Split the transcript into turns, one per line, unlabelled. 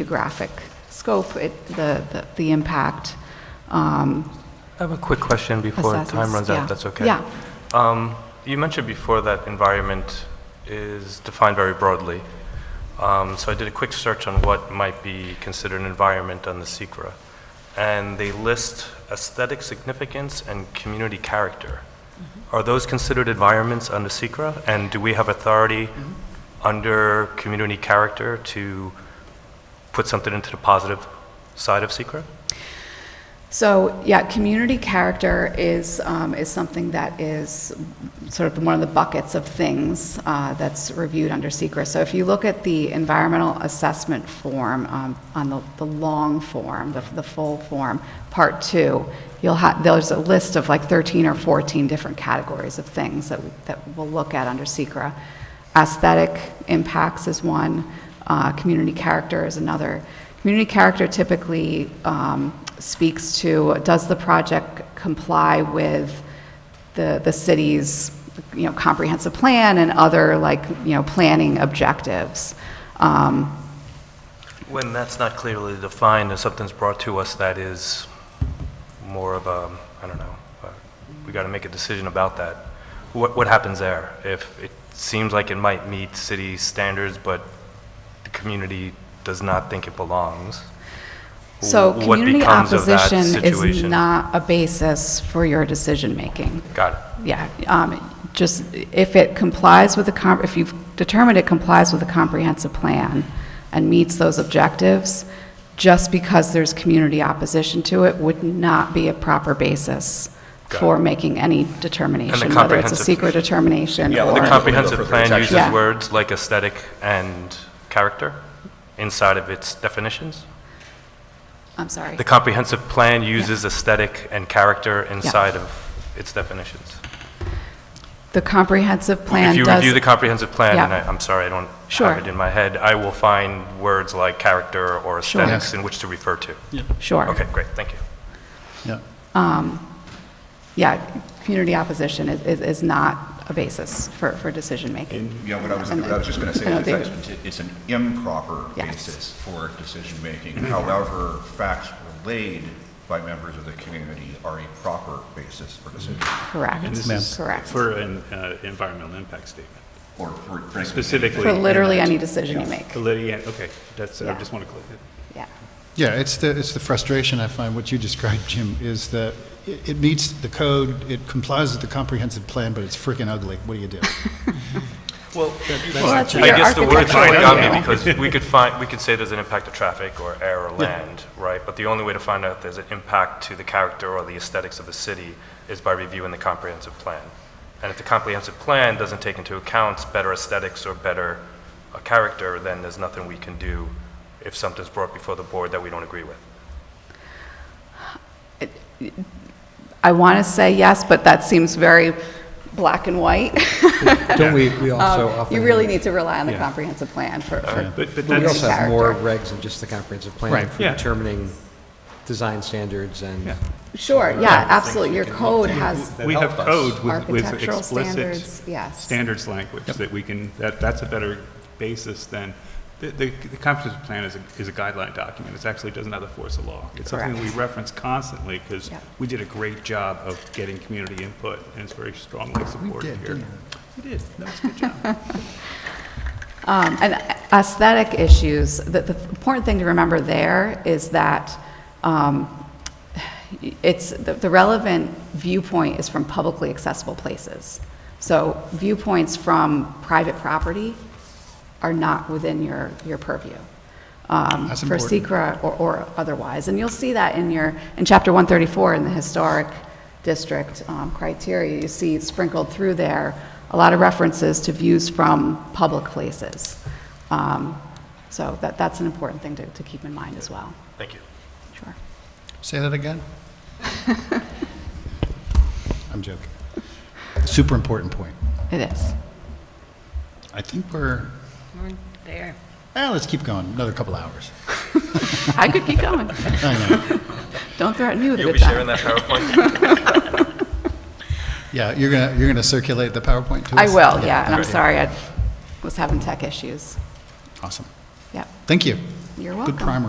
geographic scope, it, the, the, the impact. Um,
I have a quick question before time
Assessments,
runs
yeah.
out, if that's okay.
Yeah.
Um, You mentioned before that environment is defined very broadly. Um, So I did a quick search on what might be considered an environment on the SECRA, and they list aesthetic significance and community character.
Mm-hmm.
Are those considered environments under SECRA? And do we have authority
Mm-hmm.
under community character to put something into the positive side of SECRA?
So, yeah, community character is, um, is something that is sort of one of the buckets of things uh, that's reviewed under secret. So if you look at the environmental assessment form, um, on the, the long form, the, the full form, part two, you'll have, there's a list of like 13 or 14 different categories of things that, that we'll look at under secra. Aesthetic impacts is one, uh, community character is another. Community character typically um, speaks to, does the project comply with the, the city's, you know, comprehensive plan and other, like, you know, planning objectives? Um,
When that's not clearly defined, and something's brought to us that is more of a, I don't know, uh, we got to make a decision about that, what, what happens there? If it seems like it might meet city standards, but the community does not think it belongs?
So
wh- what
community
becomes of that
opposition is
situation?
not a basis for your decision-making.
Got it.
Yeah, um, just if it complies with the, com- if you've determined it complies with the comprehensive plan and meets those objectives, just because there's community opposition to it would not be a proper basis
Got
for
it.
making any determination, whether it's a
comprehensive-
secret determination
Yeah,
or...
well,
The comprehensive
for
plan
protection.
uses
Yeah.
words like aesthetic and character inside of its definitions?
I'm sorry.
The comprehensive plan uses aesthetic and character inside of its definitions?
The comprehensive plan
If you
does,
review the comprehensive plan, and
Yeah.
I- I'm sorry, I don't
Sure.
have it in my head, I will find words like character or
Sure.
aesthetics in which to refer to.
sure.
Okay, great, thank you.
Yeah.
Yeah, community opposition is- is is not a basis for for decision-making.
Yeah, what I was,
And-
what I was just going to say
I don't
is
think-
that's, it's an improper
Yes.
basis for decision-making. However, facts relayed by members of the community are a proper basis for decision,
Correct,
And this is
correct.
For an uh, environmental impact statement,
or for
specifically.
For literally
in that-
any decision you make,
For literally, yeah, okay, that's, I
Yeah.
just want to clear it.
yeah.
Yeah, it's the, it's the frustration I find, what you described, Jim, is that it it meets the code, it complies with the comprehensive plan, but it's freaking ugly. What do you do?
Well,
Well, that's
I
your
guess the words
architectural
really got me
review.
because we could find, we could say there's an impact to traffic or air or land, right? But the only way to find out if there's an impact to the character or the aesthetics of the city is by reviewing the comprehensive plan. And if the comprehensive plan doesn't take into account better aesthetics or better uh, character, then there's nothing we can do if something's brought before the board that we don't agree with.
I want to say yes, but that seems very black and white.
Don't we, we also
Um,
often...
You really need to rely on the
Yeah. Uh,
comprehensive plan for for
But, but
We
that's,
also have more
character.
regs than just the comprehensive plan
Right.
for
Yeah.
determining design standards and...
Yeah.
Sure, yeah, absolutely, your code has
we have code with- with
architectural
explicit
standards, yes.
standards language that we can, that, that's a better basis than, the, the the comprehensive plan is a, is a guideline document. It actually doesn't have the force of law. It's something that we
Correct.
reference constantly because
Yeah.
we did a great job of getting community input and it's very strongly supported here. We did, that was a good job.
Um, And aesthetic issues, the, the important thing to remember there is that um, it's, the the relevant viewpoint is from publicly accessible places. So viewpoints from private property are not within your, your purview. um,
That's
For
important.
secra or, or otherwise. And you'll see that in your, in chapter 134 in the historic district um, criteria, you see sprinkled through there a lot of references to views from public places. Um, So that, that's an important thing to, to keep in mind as well.
Thank you.
Sure.
Say that again? I'm joking. Super important point.
It is.
I think we're,
There.
eh, let's keep going, another couple hours.
I could keep going.
I know.
Don't threaten me with a
You'll
good
be sharing
time.
that PowerPoint?
Yeah, you're gonna, you're gonna circulate the PowerPoint to us?
I will, yeah, and I'm
okay.
sorry, I was having tech issues.
Awesome.
Yep.
Thank you.
You're
Good
welcome.
primer.